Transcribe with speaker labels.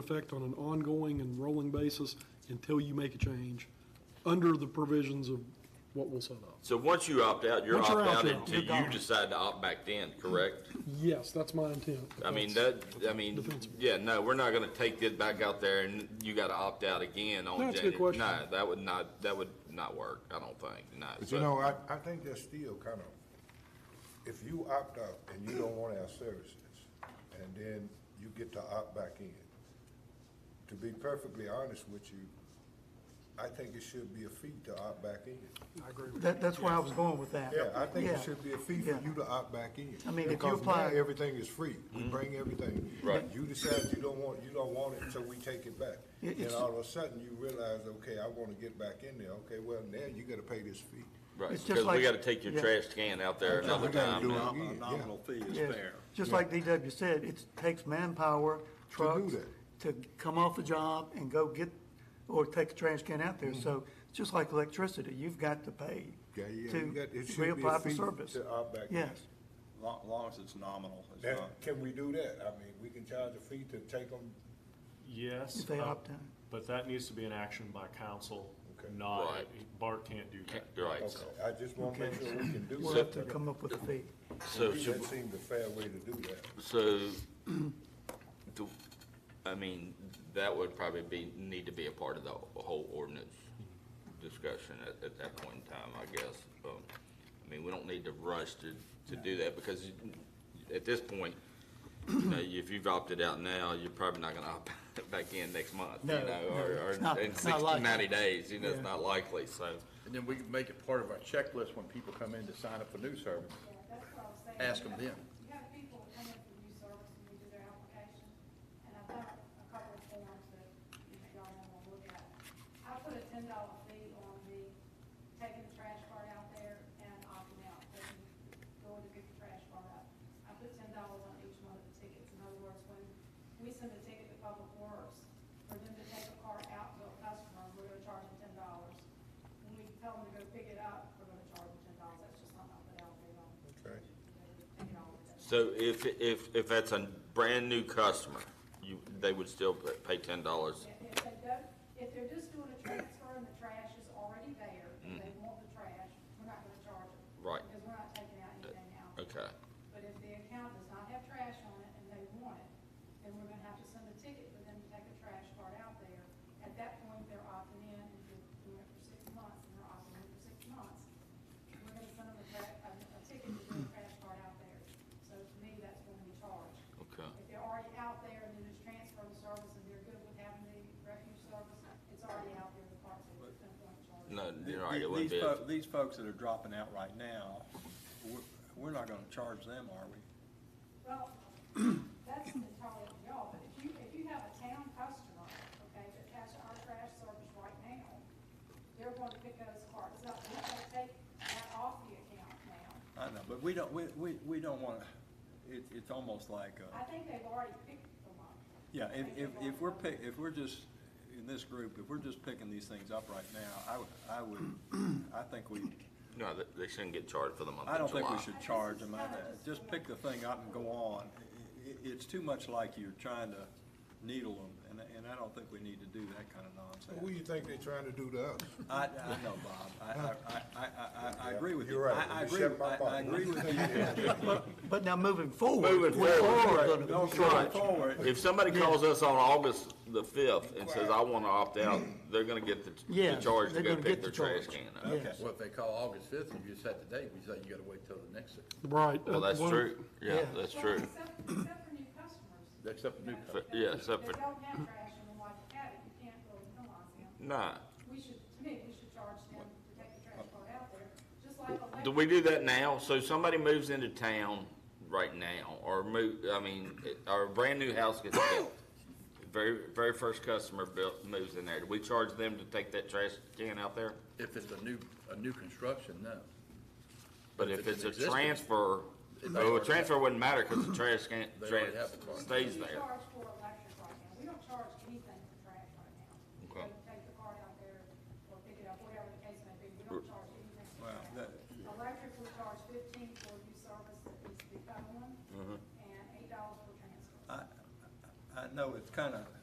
Speaker 1: effect on an ongoing and rolling basis until you make a change, under the provisions of what we'll set up.
Speaker 2: So once you opt out, you're
Speaker 1: Once
Speaker 2: opt
Speaker 1: you're
Speaker 2: out
Speaker 1: out,
Speaker 2: until
Speaker 1: you're
Speaker 2: you
Speaker 1: gone.
Speaker 2: decide to opt back in, correct?
Speaker 1: Yes, that's my intent.
Speaker 2: I mean, that, I mean, yeah, no, we're not gonna take this back out there and you gotta opt out again on
Speaker 1: No,
Speaker 2: January.
Speaker 1: it's a good question.
Speaker 2: No, that would not, that would not work, I don't think, no.
Speaker 3: But you know, I, I think that's still kind of, if you opt out and you don't want our services, and then you get to opt back in, to be perfectly honest with you, I think it should be a fee to opt back in.
Speaker 4: That, that's where I was going with that.
Speaker 3: Yeah, I think it
Speaker 4: Yeah.
Speaker 3: should be a fee
Speaker 4: Yeah.
Speaker 3: for you to opt back in.
Speaker 4: I mean, if you
Speaker 3: Because now
Speaker 4: apply-
Speaker 3: everything is free, we bring everything.
Speaker 2: Right.
Speaker 3: You decide you don't want, you don't want it, so we take it back.
Speaker 4: It-
Speaker 3: And
Speaker 4: it's-
Speaker 3: all of a sudden, you realize, okay, I want to get back in there, okay, well, now you gotta pay this fee.
Speaker 2: Right,
Speaker 4: It's just
Speaker 2: because we
Speaker 4: like-
Speaker 2: gotta take your
Speaker 4: yeah.
Speaker 2: trash can out there
Speaker 3: Yeah, we
Speaker 2: another
Speaker 3: gotta
Speaker 5: Um,
Speaker 2: time
Speaker 3: do
Speaker 2: now.
Speaker 3: it.
Speaker 6: A
Speaker 3: Yeah.
Speaker 6: nominal fee is
Speaker 4: Yes.
Speaker 6: fair.
Speaker 4: Just like DW said, it takes manpower, trucks, to come off the job and go get, or take a trash can out there. So it's just like electricity, you've got to pay
Speaker 3: Mm-hmm. Yeah, yeah, you
Speaker 4: to
Speaker 3: got- it should be a
Speaker 4: reapply for
Speaker 3: fee
Speaker 4: service.
Speaker 3: to opt back Uh, in.
Speaker 4: Yes,
Speaker 6: Long, long as it's nominal, it's
Speaker 3: Now,
Speaker 6: not.
Speaker 3: can we do that? I mean, we can charge a fee to take them,
Speaker 7: Yes.
Speaker 4: If they
Speaker 7: uh,
Speaker 4: opt in.
Speaker 7: But that needs to be an action by council,
Speaker 3: Okay.
Speaker 7: not,
Speaker 2: Right.
Speaker 7: Bart can't do that.
Speaker 2: Right,
Speaker 3: okay, I just wanna make sure we can do
Speaker 4: we'll have to
Speaker 3: that.
Speaker 4: come up with a fee.
Speaker 2: so should,
Speaker 3: That seemed a fair way to do that.
Speaker 2: So, do, I mean, that would probably be, need to be a part of the whole ordinance discussion at, at that point in time, I guess. Um, I mean, we don't need to rush to, to do that, because at this point, you know, if you've opted out now, you're probably not gonna opt back in next month, you
Speaker 4: No,
Speaker 2: know,
Speaker 4: no,
Speaker 2: or,
Speaker 4: it's not-
Speaker 2: or in
Speaker 4: it's not
Speaker 2: sixty,
Speaker 4: likely.
Speaker 2: ninety days, you know, it's
Speaker 4: Yeah.
Speaker 2: not likely, so.
Speaker 5: And then we can make it part of our checklist when people come in to sign up for new service.
Speaker 8: Yeah, that's what I'm saying.
Speaker 5: Ask 'em then.
Speaker 8: You have people come in for new service and you do their application, and I've got a couple of forms that if y'all want to look at. I put a ten dollar fee on the taking the trash cart out there and opting out, taking, going to pick the trash cart up. I put ten dollars on each one of the tickets, in other words, when we send a ticket to Public Works, for them to take a cart out to a customer, we're gonna charge them ten dollars. When we tell them to go pick it up, we're gonna charge them ten dollars, that's just something I put out there on.
Speaker 3: Okay.
Speaker 2: So if, if, if that's a brand-new customer, you, they would still pay ten dollars
Speaker 8: If if they don't, if they're just doing a transfer and the trash is already there, and they want the trash, we're not gonna charge them.
Speaker 2: Right. Uh,
Speaker 8: Because we're not taking out anything out.
Speaker 2: Okay.
Speaker 8: But if the account does not have trash on it and they want it, then we're gonna have to send a ticket for them to take a trash cart out there. At that point, they're opting in, if they're doing it for six months, and they're opting in for six months, we're gonna send them a tra- a, a ticket to do a trash cart out there. So to me, that's when we charge.
Speaker 2: Okay.
Speaker 8: If they're already out there and then it's transfer of service and they're good with having the refuge service, it's already out there, the parks, it's gonna go in charge.
Speaker 2: No,
Speaker 6: Th-
Speaker 2: you're right, it wouldn't
Speaker 6: these
Speaker 2: be, a-
Speaker 6: fol- These folks that are dropping out right now, we're, we're not gonna charge them, are we?
Speaker 8: Well, that's entirely up to y'all, but if you, if you have a town customer, okay, that has our trash service right now, they're going to pick those carts up, we're going to take that off the account now.
Speaker 6: I know, but we don't, we, we, we don't wanna, it, it's almost like,
Speaker 8: I
Speaker 6: uh,
Speaker 8: think they've already picked them up.
Speaker 6: yeah, if, if, if we're pick, if we're just, in this group, if we're just picking these things up right now, I would, I would, I think we,
Speaker 2: no, they- they shouldn't get charged for the month
Speaker 6: I
Speaker 2: of
Speaker 6: don't think we
Speaker 2: July.
Speaker 6: should charge them. I- Just pick the thing up and go on. I- i- it's too much like you're trying to needle them, and, and I don't think we need to do that kind of
Speaker 3: Who
Speaker 6: nonsense.
Speaker 3: you think they are trying to do to us?
Speaker 6: I, I know, Bob. I, I, I, I, I, I agree with you.
Speaker 3: You're right.
Speaker 6: I, I
Speaker 3: You
Speaker 6: agree,
Speaker 3: shut
Speaker 6: with-
Speaker 3: my
Speaker 6: I, I
Speaker 3: mouth.
Speaker 6: agree with you.
Speaker 4: But now moving forward.
Speaker 2: Moving
Speaker 4: we're
Speaker 2: forward,
Speaker 4: all
Speaker 3: right.
Speaker 4: gonna-
Speaker 6: Don't charge forward.
Speaker 2: If somebody calls us on August the fifth and says, I wanna opt out, they're gonna get the, the
Speaker 4: Yeah,
Speaker 2: charge to
Speaker 4: they're
Speaker 2: go
Speaker 4: gonna
Speaker 2: pick
Speaker 4: get
Speaker 2: their
Speaker 4: the
Speaker 2: trash
Speaker 4: charge.
Speaker 2: can up.
Speaker 6: Okay.
Speaker 5: Well, if they call August fifth and you set the date, we say you gotta wait till the next,
Speaker 1: Right.
Speaker 2: Well, that's
Speaker 1: One-
Speaker 2: true, yeah,
Speaker 4: Yeah.
Speaker 2: that's true.
Speaker 8: Well, except, except for new customers.
Speaker 5: except the new
Speaker 2: For-
Speaker 5: company.
Speaker 2: yeah, except for-
Speaker 8: If they don't have trash in the White Academy, you can't really penalize them.
Speaker 2: Nah,
Speaker 8: We should, to me, we should charge them to take the trash cart out there, just like a.
Speaker 2: Uh, do we do that now? So somebody moves into town right now, or move, I mean, it- or a brand-new house gets built. Very, very first customer built, moves in there, do we charge them to take that trash can out there?
Speaker 5: If it's a new, a new construction, no.
Speaker 2: But if it's a
Speaker 5: existing-
Speaker 2: transfer,
Speaker 5: It's
Speaker 2: well, a
Speaker 5: already-
Speaker 2: transfer wouldn't matter, cause the trash can,
Speaker 5: They
Speaker 2: trash
Speaker 5: already have the card.
Speaker 2: stays
Speaker 8: We
Speaker 2: there.
Speaker 8: charge for electric right now, we don't charge anything for trash right now.
Speaker 2: Okay.
Speaker 8: They Take the cart out there, or pick it up, whatever the case may be, we don't charge anything for
Speaker 6: Well,
Speaker 8: trash.
Speaker 6: that-
Speaker 8: Electric, we charge fifteen for new service that
Speaker 2: Mm-hmm.
Speaker 8: needs to be found, and eight dollars for transfer.
Speaker 6: I, I know it's kind of,